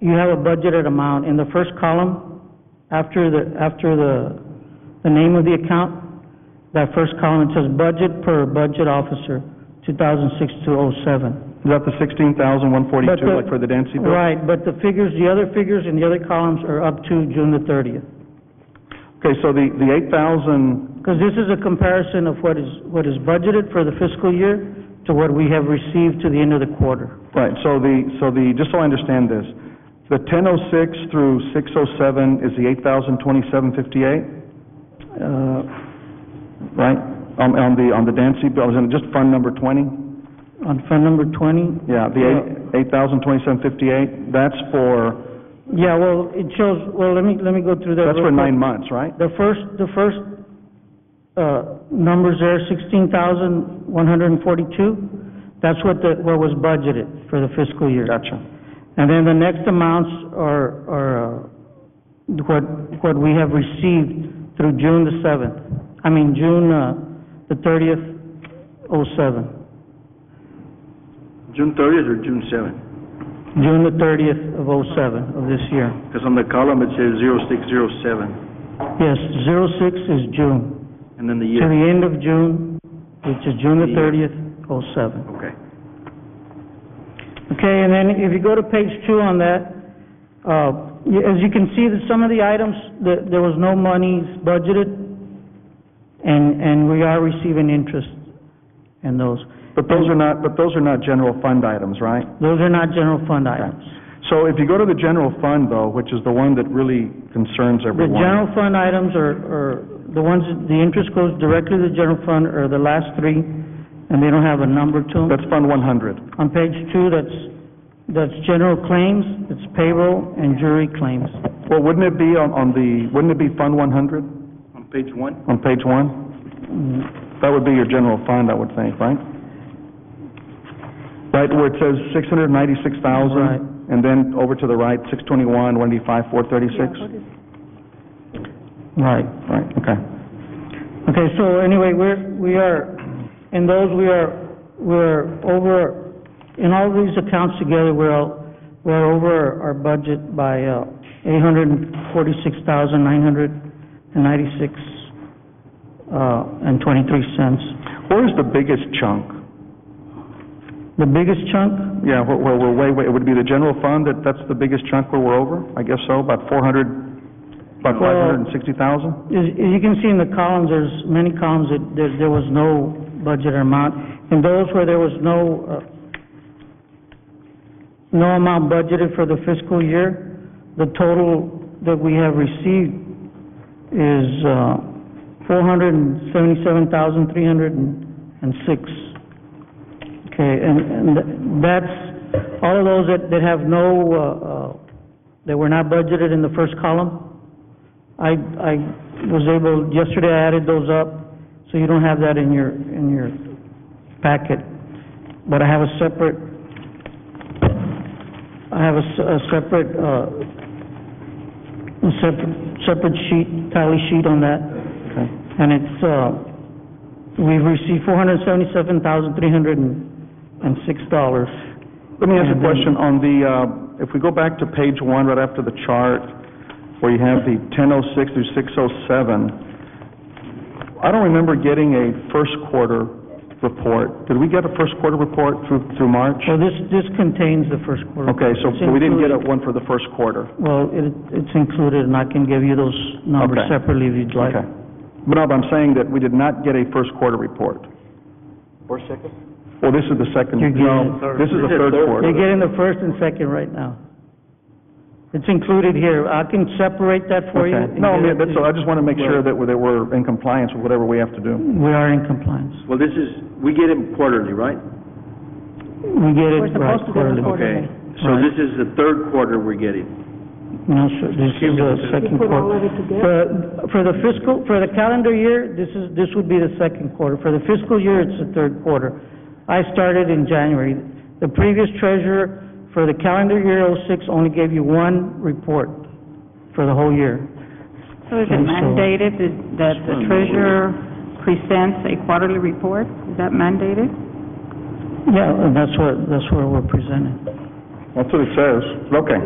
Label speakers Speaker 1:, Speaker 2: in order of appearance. Speaker 1: you have a budgeted amount. In the first column, after the, after the, the name of the account, that first column, it says budget per budget officer, 2006 to 07.
Speaker 2: Is that the sixteen thousand, one
Speaker 1: But
Speaker 2: forty-two, like for the Dempsey bill?
Speaker 1: Right, but the figures, the other figures in the other columns are up to June the 30th.
Speaker 2: Okay, so the, the eight thousand,
Speaker 1: Because this is a comparison of what is, what is budgeted for the fiscal year to what we have received to the end of the quarter.
Speaker 2: right, so the, so the, just so I understand this, the ten oh six through six oh seven is the eight thousand, twenty-seven, fifty-eight,
Speaker 1: Uh,
Speaker 2: right? On, on the, on the Dempsey bill, is it just fund number twenty?
Speaker 1: On fund number 20,
Speaker 2: Yeah, the eight, eight thousand, twenty-seven, fifty-eight, that's for,
Speaker 1: yeah, well, it shows, well, let me, let me go through that.
Speaker 2: that's
Speaker 1: real
Speaker 2: for
Speaker 1: quick.
Speaker 2: nine months, right?
Speaker 1: The first, the first, uh, numbers there, sixteen thousand, one hundred and forty-two, that's what the, what was budgeted for the fiscal year.
Speaker 2: Gotcha.
Speaker 1: And then the next amounts are, are, uh, what, what we have received through June the seventh, I mean, June, uh, the thirtieth, oh seven,
Speaker 3: June thirtieth or June seventh?
Speaker 1: June the thirtieth of oh seven of this year.
Speaker 3: Because on the column, it says zero six zero seven,
Speaker 1: Yes, zero-six is June,
Speaker 3: and then the
Speaker 1: to
Speaker 3: year.
Speaker 1: the end of June, which is June the thirtieth, oh seven.
Speaker 3: Okay.
Speaker 1: Okay, and then if you go to page two on that, uh, y- as you can see that some of the items, that there was no monies budgeted, and, and we are receiving interest in those.
Speaker 2: But those are not, but those are not general fund items, right?
Speaker 1: Those are not general fund items.
Speaker 2: So if you go to the general fund though, which is the one that really concerns
Speaker 1: The
Speaker 2: everyone.
Speaker 1: general fund items are, are the ones, that the interest goes directly to the general fund, are the last three, and they don't have a number to them.
Speaker 2: That's Fund one hundred.
Speaker 1: On page two, that's, that's general claims, it's payroll and jury claims.
Speaker 2: Well, wouldn't it be on, on the, wouldn't it be Fund one hundred
Speaker 3: On page one?
Speaker 2: on page one? That would be your general fund, I would think, right? Right, where it says six hundred ninety-six
Speaker 1: Right.
Speaker 2: thousand, and then over to the right, six twenty-one, one eighty-five, four thirty-six?
Speaker 1: Right.
Speaker 2: Right, okay.
Speaker 1: Okay, so anyway, we're, we are, in those, we are, we're over, in all these accounts together, we're, all- we're over our budget by uh, eight hundred and forty-six thousand, nine hundred and ninety-six, uh, and twenty-three cents.
Speaker 2: Where is the biggest chunk?
Speaker 1: The biggest chunk,
Speaker 2: Yeah, where, where we're way, way, it would be the general fund, that, that's the biggest chunk where we're over? I guess so, about four hundred, about five hundred and sixty thousand?
Speaker 1: is, as you can see in the columns, there's many columns that, there, there was no budget amount. And those where there was no, uh, no amount budgeted for the fiscal year, the total that we have received is, uh, four hundred and seventy-seven thousand, three hundred and six. Okay, and, and that's, all of those that, that have no, uh, uh, that were not budgeted in the first column, I, I was able, yesterday I added those up, so you don't have that in your, in your packet. But I have a separate, I have a, s- a separate, uh, a separate, separate sheet, tally sheet on that.
Speaker 2: Okay.
Speaker 1: And it's, uh, we've received four hundred seventy-seven thousand, three hundred and six dollars.
Speaker 2: Let me ask a
Speaker 1: And then-
Speaker 2: question on the, uh, if we go back to page one, right after the chart, where you have the 1006 through 607, I don't remember getting a first quarter report. Did we get a first quarter report through, through March?
Speaker 1: So this, this contains the first quarter.
Speaker 2: Okay, so
Speaker 1: It's
Speaker 2: we didn't get a
Speaker 1: included.
Speaker 2: one for the first quarter.
Speaker 1: Well, it, it's included, and I can give you those numbers
Speaker 2: Okay.
Speaker 1: separately if you'd like.
Speaker 2: Okay. But no, but I'm saying that we did not get a first quarter report.
Speaker 3: Or second?
Speaker 2: Well, this is the second,
Speaker 1: You're getting-
Speaker 2: no, this is the
Speaker 3: This is
Speaker 2: third
Speaker 3: third.
Speaker 1: You're
Speaker 2: quarter.
Speaker 1: getting the first and second right now. It's included here. I can separate that for you.
Speaker 2: Okay.
Speaker 1: and
Speaker 2: No, I
Speaker 1: get
Speaker 2: mean,
Speaker 1: it
Speaker 2: that's,
Speaker 1: to you.
Speaker 2: I just want to make sure that we're, that we're in compliance with whatever we have to do.
Speaker 1: We are in compliance.
Speaker 3: Well, this is, we get them quarterly, right?
Speaker 1: We get
Speaker 4: We're
Speaker 1: it right
Speaker 4: supposed to get
Speaker 1: quarterly.
Speaker 4: it quarterly.
Speaker 3: So
Speaker 1: Right.
Speaker 3: this is the third quarter we're getting.
Speaker 1: No, sir, this is the second
Speaker 4: put all of
Speaker 1: quarter.
Speaker 4: it together.
Speaker 1: For, for the fiscal, for the calendar year, this is, this would be the second quarter. For the fiscal year, it's the third quarter. I started in January. The previous treasurer for the calendar year oh-six only gave you one report for the whole year.
Speaker 4: So is it
Speaker 1: And so-
Speaker 4: mandated that- that the treasurer presents a quarterly report? Is that mandated?
Speaker 1: Yeah, and that's what, that's where we're presented.
Speaker 2: That's what it says. Okay.